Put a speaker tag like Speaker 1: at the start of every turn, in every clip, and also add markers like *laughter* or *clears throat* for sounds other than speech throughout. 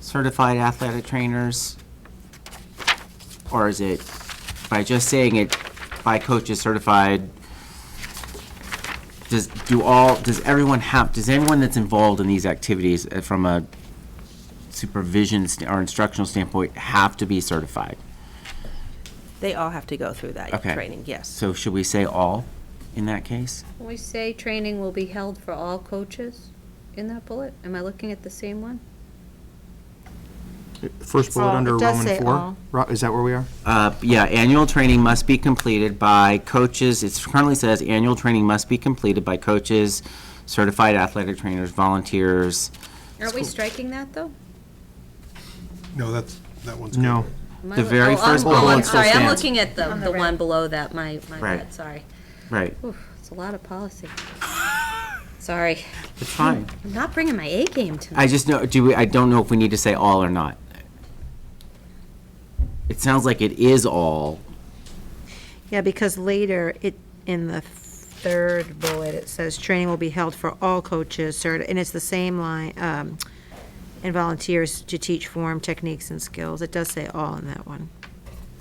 Speaker 1: certified athletic trainers? Or is it, by just saying it, by coaches certified, does, do all, does everyone have, does anyone that's involved in these activities uh, from a supervision st- or instructional standpoint have to be certified?
Speaker 2: They all have to go through that
Speaker 1: Okay.
Speaker 2: training, yes.
Speaker 1: So should we say all in that case?
Speaker 3: Can we say training will be held for all coaches in that bullet? Am I looking at the same one?
Speaker 4: First bullet
Speaker 5: all-
Speaker 4: under
Speaker 5: it does
Speaker 4: Roman
Speaker 5: say
Speaker 4: four?
Speaker 5: all.
Speaker 4: Ro- Is that where we are?
Speaker 1: Uh, yeah, annual training must be completed by coaches, it currently says annual training must be completed by coaches, certified athletic trainers, volunteers.
Speaker 3: Aren't we
Speaker 1: School-
Speaker 3: striking that, though?
Speaker 6: No, that's, that one's.
Speaker 4: No.
Speaker 6: good.
Speaker 3: Am I
Speaker 1: The
Speaker 3: loo-
Speaker 1: very
Speaker 3: oh, I'm-
Speaker 1: first
Speaker 3: oh, I'm
Speaker 1: bullet
Speaker 3: Sorry, I'm
Speaker 1: stands.
Speaker 3: looking at the,
Speaker 5: On the
Speaker 3: the
Speaker 5: red.
Speaker 3: one below that, my, my
Speaker 1: Right.
Speaker 3: bad, sorry.
Speaker 1: Right,
Speaker 3: Oof, it's a lot of policy. Sorry,
Speaker 1: it's fine.
Speaker 3: I'm not bringing my A game
Speaker 1: I
Speaker 3: tonight.
Speaker 1: just know, do we, I don't know if we need to say all or not. It sounds like it is all,
Speaker 5: Yeah, because later, it, in the third bullet, it says, "Training will be held for all coaches," certi- and it's the same line, um, "and volunteers to teach form, techniques, and skills." It does say all in that one.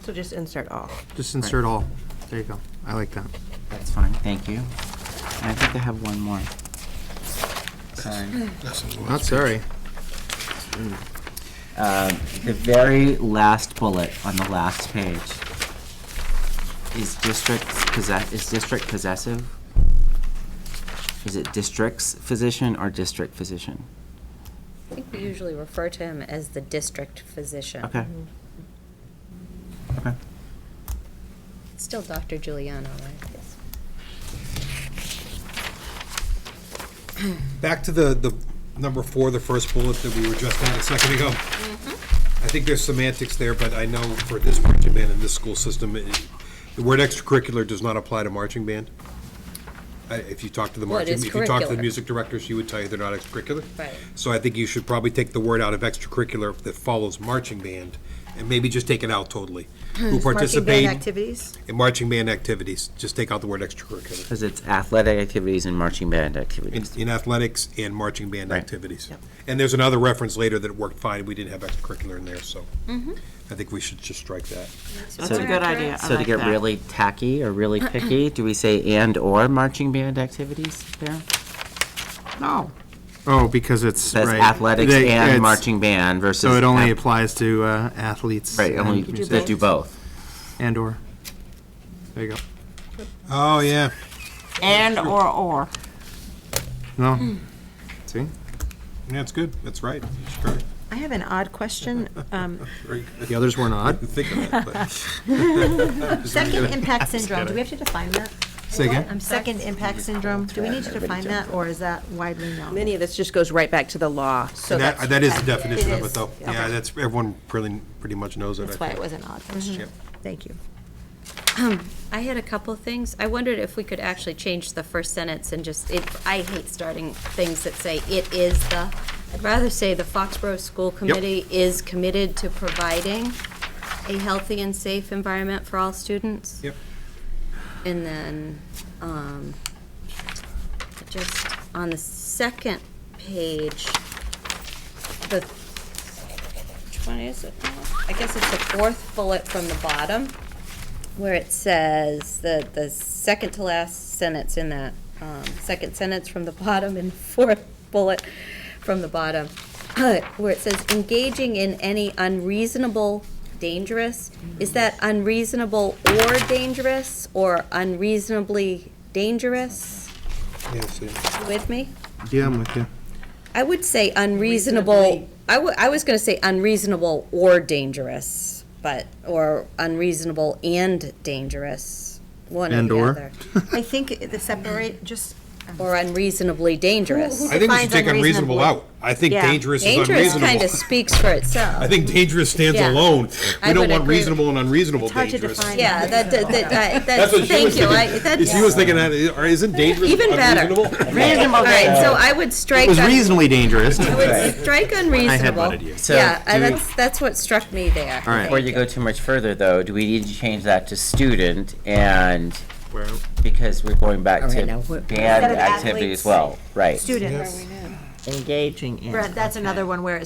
Speaker 2: So just insert all.
Speaker 4: Just insert all. There you go. I like that.
Speaker 1: that's fine, thank you. And I think I have one more. Sorry.
Speaker 6: That's in the
Speaker 4: Not
Speaker 6: last
Speaker 4: sorry.
Speaker 1: The very last bullet on the last page. Is district possess, is district possessive? Is it districts physician or district physician?
Speaker 3: I think we usually refer to him as the district physician.
Speaker 1: Okay. Okay.
Speaker 3: It's Still Dr. Giuliano, right? Yes.
Speaker 6: Back to the, the number four, the first bullet that we were just on a second ago.
Speaker 3: Mm-hmm.
Speaker 6: I think there's semantics there, but I know for this marching band in this school system, it- the word extracurricular does not apply to marching band. I- If you talk to the
Speaker 3: Well, it
Speaker 6: marching,
Speaker 3: is
Speaker 6: if you talk to the
Speaker 3: curricular.
Speaker 6: music director, she would tell you they're not extracurricular.
Speaker 3: Right.
Speaker 6: So I think you should probably take the word out of extracurricular that follows marching band, and maybe just take it out totally.
Speaker 3: *clears throat*
Speaker 6: Who participate
Speaker 5: activities?
Speaker 6: in marching band activities, just take out the word extracurricular.
Speaker 1: Because it's athletic activities and marching band
Speaker 6: in,
Speaker 1: activities.
Speaker 6: in athletics and marching band
Speaker 1: Right.
Speaker 6: activities. And there's another reference later that worked fine, we didn't have extracurricular in there, so
Speaker 5: Mm-hmm.
Speaker 6: I think we should just strike that.
Speaker 1: That's
Speaker 7: a good idea. I
Speaker 1: So to
Speaker 7: like
Speaker 1: get
Speaker 7: that.
Speaker 1: really tacky or really picky, do we say and/or marching band activities there?
Speaker 4: No. Oh, because it's,
Speaker 1: Says
Speaker 4: right.
Speaker 1: athletics
Speaker 4: They-
Speaker 1: and
Speaker 4: it's-
Speaker 1: marching band versus.
Speaker 4: So it only
Speaker 1: ath-
Speaker 4: applies to uh, athletes.
Speaker 1: Right,
Speaker 4: and
Speaker 1: only,
Speaker 4: musicians.
Speaker 1: that do both.
Speaker 4: And/or. There you go.
Speaker 6: Oh, yeah.
Speaker 7: And or or.
Speaker 4: No. See?
Speaker 6: That's good, that's right. You should try.
Speaker 5: I have an odd question. Um,
Speaker 6: Very good.
Speaker 4: The others were not.
Speaker 6: Think of *laughs* that, but-
Speaker 5: Second impact syndrome, do we have to define that?
Speaker 4: Say again.
Speaker 5: Um, Second impact syndrome, do we need to define that, or is that widely known?
Speaker 2: Many of this just goes right back to the law, so
Speaker 6: And
Speaker 2: that's.
Speaker 6: That, that is the
Speaker 5: It
Speaker 6: definition of
Speaker 5: is.
Speaker 6: it, though. Yeah, that's, everyone pretty, pretty much knows it,
Speaker 5: That's
Speaker 6: I
Speaker 5: why
Speaker 6: think.
Speaker 5: it was an odd question. Thank you.
Speaker 3: *clears throat* I had a couple of things. I wondered if we could actually change the first sentence and just, it, I hate starting things that say it is the. I'd rather say the Foxborough School Committee is committed to providing a healthy and safe environment for all students.
Speaker 6: Yep.
Speaker 3: And then, um, just on the second page, the, which one is it? now? I guess it's the fourth bullet from the bottom where it says the the second to last sentence in that um, second sentence from the *laughs* bottom and fourth bullet from the bottom, *clears throat* where it says engaging in any unreasonable, dangerous. Is that unreasonable or dangerous or unreasonably dangerous?
Speaker 6: Yes, yeah.
Speaker 3: You With me,
Speaker 4: Yeah, I'm with you.
Speaker 3: I would say unreasonable. I wa- I was going to say unreasonable or dangerous, but or unreasonable and dangerous. One
Speaker 4: And
Speaker 3: or the
Speaker 4: or?
Speaker 3: other.
Speaker 5: I think the separate, just
Speaker 3: or unreasonably dangerous.
Speaker 6: I think we should
Speaker 5: defines
Speaker 6: take unreasonable
Speaker 5: unreasonable?
Speaker 6: out. I think
Speaker 5: Yeah.
Speaker 6: dangerous is
Speaker 3: Dangerous kind
Speaker 6: unreasonable.
Speaker 3: of speaks for
Speaker 6: I
Speaker 3: itself.
Speaker 6: think dangerous stands
Speaker 3: Yeah.
Speaker 6: alone.
Speaker 3: I
Speaker 6: We don't
Speaker 3: would
Speaker 6: want
Speaker 3: agree.
Speaker 6: reasonable and unreasonable
Speaker 5: It's hard to
Speaker 6: dangerous.
Speaker 5: define.
Speaker 3: Yeah, that, that, that, I-
Speaker 6: That's
Speaker 3: that's,
Speaker 6: what she was
Speaker 3: thank you, I,
Speaker 6: thinking.
Speaker 3: that's.
Speaker 6: She was thinking that, or isn't dangerous
Speaker 3: Even better.
Speaker 6: unreasonable?
Speaker 3: All right, so I would strike,
Speaker 4: It was
Speaker 3: un-
Speaker 4: reasonably dangerous.
Speaker 3: I would strike unreasonable.
Speaker 1: So
Speaker 3: Yeah,
Speaker 1: do
Speaker 3: and
Speaker 1: we-
Speaker 3: that's, that's what struck me there.
Speaker 4: All right.
Speaker 1: Before you go too much further, though, do we need to change that to student and, because we're going back
Speaker 7: Okay,
Speaker 1: to
Speaker 7: now what-
Speaker 1: band
Speaker 5: of
Speaker 1: activity as well, right?
Speaker 5: students,
Speaker 7: Engaging in.
Speaker 5: Brett, that's another one where it's